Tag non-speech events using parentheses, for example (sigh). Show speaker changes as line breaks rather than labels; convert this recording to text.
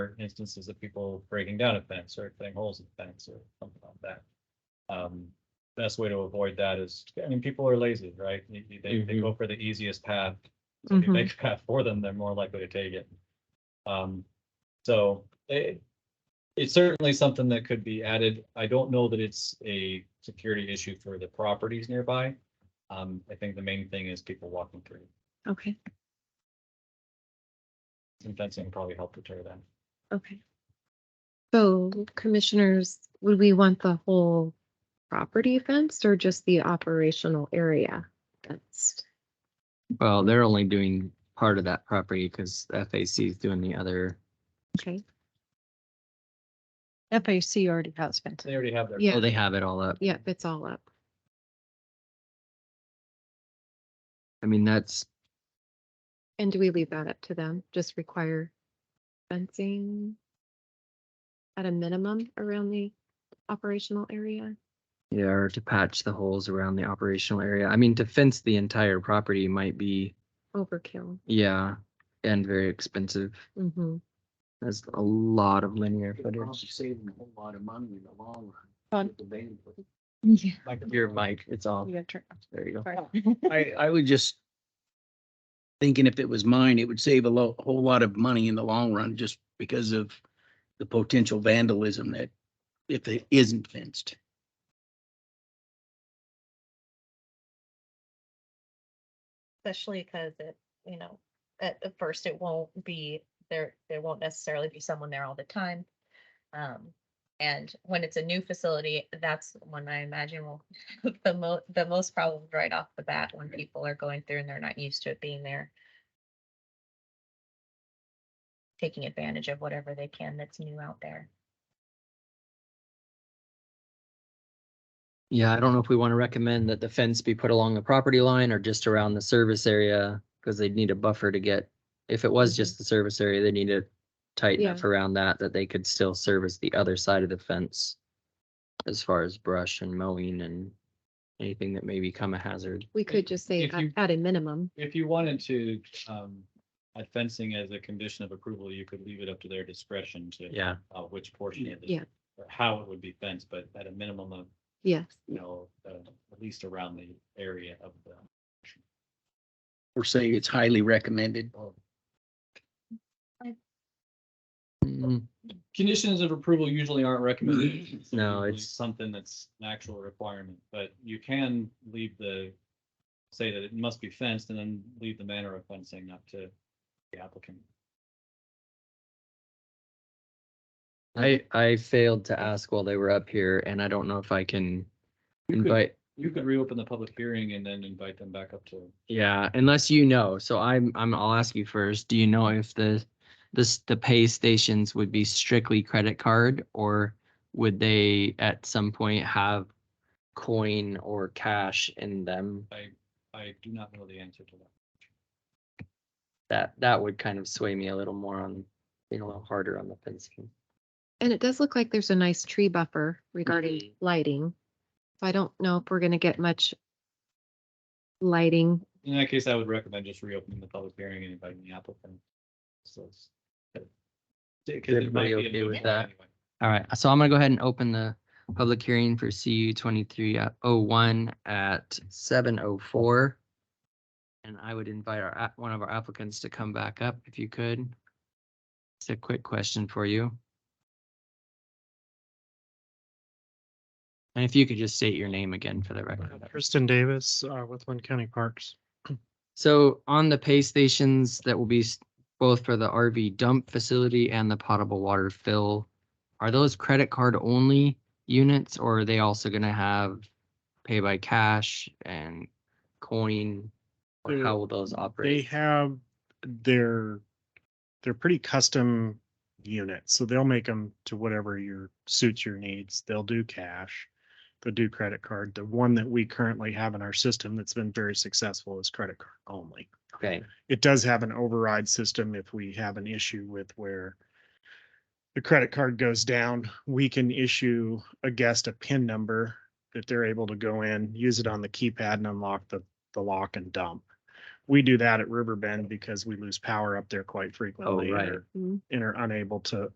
instances of people breaking down a fence or cutting holes in the fence or something like that. Um, best way to avoid that is, I mean, people are lazy, right? They, they- they go for the easiest path. So If you
Mhm.
make a path for them, they're more likely to take it. Um, so it, it's certainly something that could be added. I don't know that it's a security issue for the properties nearby. Um, I think the main thing is people walking through
Okay,
and fencing probably help deter that.
okay. So commissioners, would we want the whole property fenced or just the operational area fenced?
Well, they're only doing part of that property because FAC is doing the other.
Okay,
FAC already has fencing.
They already have their.
Yeah.
Oh, they have it all up.
yep, it's all up.
I mean, that's,
And do we leave that up to them? Just require fencing at a minimum around the operational area?
yeah, or to patch the holes around the operational area. I mean, to fence the entire property might be,
Overkill.
yeah, and very expensive.
Mm-hmm.
That's a lot of linear footage.
Saving a whole lot of money in the long run.
Fun.
with the van for
Yeah. Oh.
Your mic, it's off.
You gotta turn it off.
There you go.
Sorry. (laughs)
I, I would just thinking if it was mine, it would save a lo- whole lot of money in the long run just because of the potential vandalism that if it isn't fenced.
especially because it, you know, at, at first it won't be there, there won't necessarily be someone there all the time. Um, and when it's a new facility, that's when I imagine will (laughs) have the mo- the most problems right off the bat when people are going through and they're not used to it being there. Taking advantage of whatever they can that's new out there.
Yeah, I don't know if we want to recommend that the fence be put along the property line or just around the service area, because they'd need a buffer to get, if it was just the service area, they need to tighten
Yeah.
up around that, that they could still service the other side of the fence as far as brush and mowing and anything that may become a hazard.
We could just say
If you-
at- at a minimum.
If you wanted to, um, add fencing as a condition of approval, you could leave it up to their discretion to.
Yeah,
Uh, which portion of the.
Yeah.
Or how it would be fenced, but at a minimum of,
Yes.
you know, uh, at least around the area of the.
Or say it's highly recommended.
Mm,
Conditions of approval usually aren't recommended. It's
(clears throat) No,
usually
it's-
Something that's an actual requirement, but you can leave the, say that it must be fenced and then leave the manner of fencing up to the applicant.
I, I failed to ask while they were up here, and I don't know if I can
could-
invite,
You could reopen the public hearing and then invite them back up to.
Yeah, unless you know. So I'm, I'm, I'll ask you first. Do you know if the, this, the pay stations would be strictly credit card? Or would they at some point have coin or cash in them?
I do not know the answer to that.
That, that would kind of sway me a little more on, being a little harder on the fencing.
And it does look like there's a nice tree buffer regarding
Mm-hmm.
lighting. So I don't know if we're gonna get much lighting.
In that case, I would recommend just reopening the public hearing and inviting the applicant. So it's. Because it might
everybody
be a
okay
moot
with
point
that?
anyway.
All right, so I'm gonna go ahead and open the public hearing for CU twenty-three oh one at seven oh four. And I would invite our, app- one of our applicants to come back up if you could. It's a quick question for you. And if you could just state your name again for the record.
Kristen Uh, Davis uh, with Lynn County Parks.
So on the pay stations that will be s- both for the RV dump facility and the potable water fill, are those credit card only units or are they also gonna have pay by cash and coin? Or
They're-
how will those
They
operate?
have their, they're pretty custom units, so they'll make them to whatever your suits your needs. They'll do cash, they'll do credit card. The one that we currently have in our system that's been very successful is credit card only.
Okay,
It does have an override system if we have an issue with where the credit card goes down, we can issue a guest a PIN number that they're able to go in, use it on the keypad and unlock the, the lock and dump. We do that at Riverbend because we lose power up there quite frequently.
right.
or-
Mhm.
And are unable to